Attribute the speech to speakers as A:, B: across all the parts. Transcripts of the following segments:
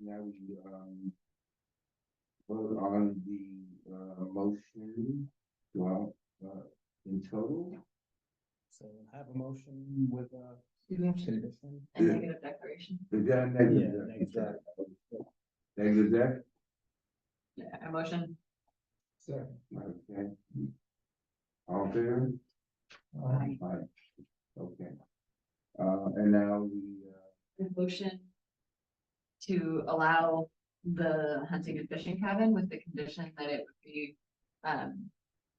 A: Now we can, um. Vote on the, uh, motion, well, uh, in total.
B: So have a motion with uh, a. condition.
C: And
A: Yeah.
C: negative declaration,
A: Is that a
B: Yeah,
A: negative?
B: negative
A: deck?
B: deck.
A: Negative deck?
C: Yeah, a motion,
A: Okay. All in favor?
C: Aye.
A: Aye. Okay. Uh, and now we, uh,
C: a motion to allow the hunting and fishing cabin with the condition that it would be um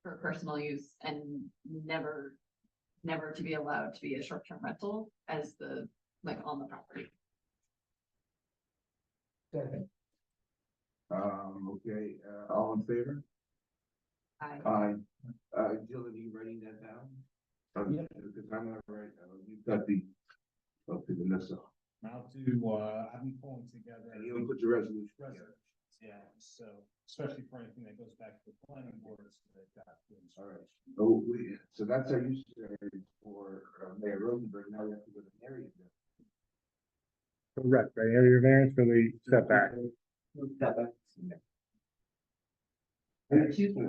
C: for personal use and never, never to be allowed to be a short-term rental as the, like, on the property.
A: um, okay, uh, all in favor?
C: I,
A: Aye. Uh, Jill, are you writing that down? Um,
B: Yeah.
A: Because I'm not right, uh, you've got the, okay, Vanessa,
B: Now to, uh, I'm pulling together.
A: and you put your resolution. together.
B: Resolutions, yeah, so especially for anything that goes back to the planning board, so they've got. the
A: All right.
B: instruction.
A: Oh, we, so that's our use variance for uh, Mayor Rosenberg, now we have to go to Mary. again.
D: Correct, right, area variance for the setback.
E: And Excuse me.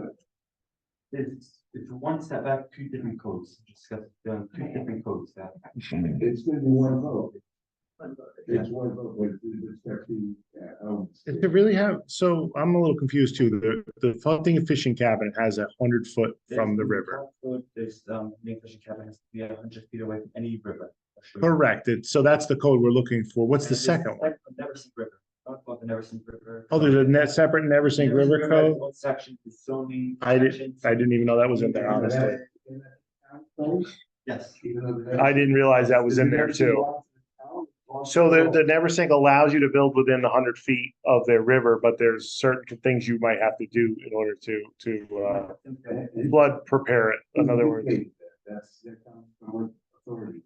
E: It's, it's one setback, two different codes, discuss, um, two different codes that.
A: It's gonna be one vote.
C: one voted.
A: It's one vote, but with respect to, uh, elements.
D: Does it really have, so I'm a little confused too, the, the hunting and fishing cabin has a hundred foot from the river.
E: Code, There's, um, Lake Fishing Cabin has to be a hundred feet away from any river. or stream.
D: Correct, it, so that's the code we're looking for, what's
E: And
D: the
E: there's a
D: second one?
E: separate Neversink River, talk about the Neversink River.
D: Oh, there's a net separate Never Sink
E: Neversink
D: River
E: has
D: code,
E: its own Section, the zoning.
D: I didn't-
E: sections.
D: I didn't even know that was in there, honestly,
A: Even though
E: Yes,
A: the-
D: I didn't realize that was in there too. So the, the Never Sink allows you to build within the hundred feet of their river, but there's certain things you might have to do in order to, to, uh, flood prepare it, in
A: Mm-hmm.
D: other words.
A: That's, that comes from authority.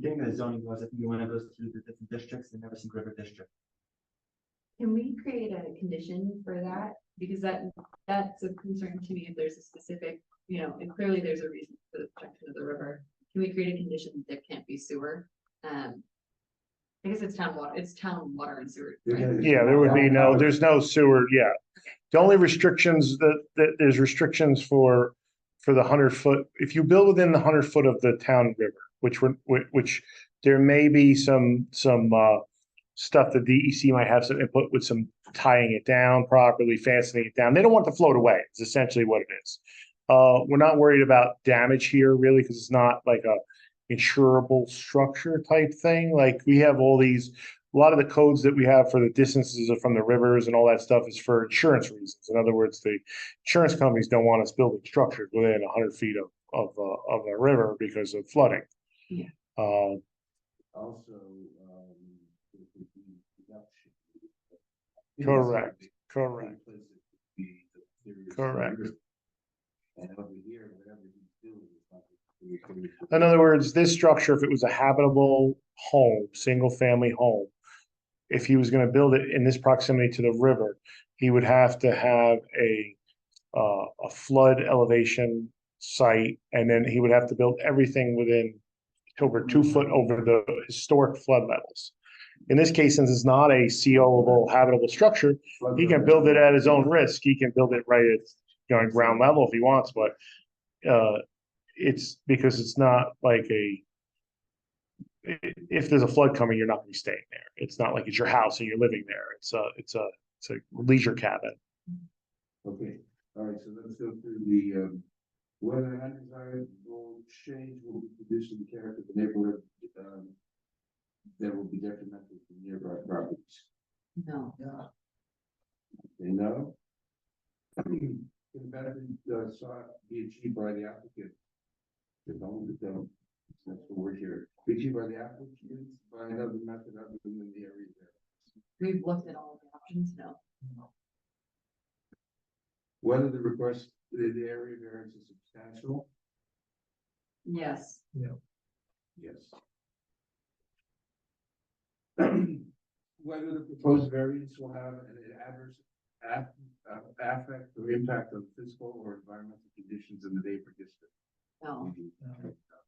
E: Getting the zoning laws, I think one of those through the different districts, the Neversink River District.
C: Can we create a condition for that? Because that, that's a concern to me if there's a specific, you know, and clearly there's a reason for the protection of the river. Can we create a condition that there can't be sewer? Um. I guess it's town water, it's town water and sewer. right?
D: Yeah, there would be no, there's no sewer, yeah. The only restrictions that, that there's restrictions for, for the hundred foot, if you build within the hundred foot of the town river, which would, which, which there may be some, some, uh, stuff that DEC might have some input with some tying it down properly, fastening it down. They don't want to float away. It's essentially what it is. Uh, we're not worried about damage here really, because it's not like a insurable structure type thing. Like we have all these a lot of the codes that we have for the distances from the rivers and all that stuff is for insurance reasons. In other words, the insurance companies don't want us building structures within hundred feet of, of, uh, of a river because of flooding.
C: Yeah.
D: Uh,
A: Also, um. it would be production.
D: Correct. correct.
A: Because it would be the theory of
D: Correct.
A: surrender. And over here, whatever he's doing is not. the theory of
D: In
A: surrender.
D: other words, this structure, if it was a habitable home, single family home. If he was gonna build it in this proximity to the river, he would have to have a, uh, a flood elevation site. And then he would have to build everything within over two foot over the historic flood levels. In this case, since it's not a COable habitable structure, he can build it at his own risk. He can build it right at, you know, at ground level if he wants, but uh, it's because it's not like a i- if there's a flood coming, you're not gonna be staying there. It's not like it's your house and you're living there. It's a, it's a, it's a leisure cabin.
A: Okay, all right, so let's go through the, um, whether an undesirable change will be conditioned to the character of the neighborhood, um, that will be detrimental to nearby properties.
C: No,
A: They know. Can benefit, uh, sought be achieved by the applicant. Development, um, that's the word here, be achieved by the applicant by another method other than the area. there.
C: we've looked at all of the options, no.
A: Whether the request, the, the area variance is substantial,
C: Yes,
A: Yes. Whether the proposed variance will have an adverse aff- uh, affect or impact on physical or environmental conditions in the neighbor district.
C: no,
A: Mhm.
B: No.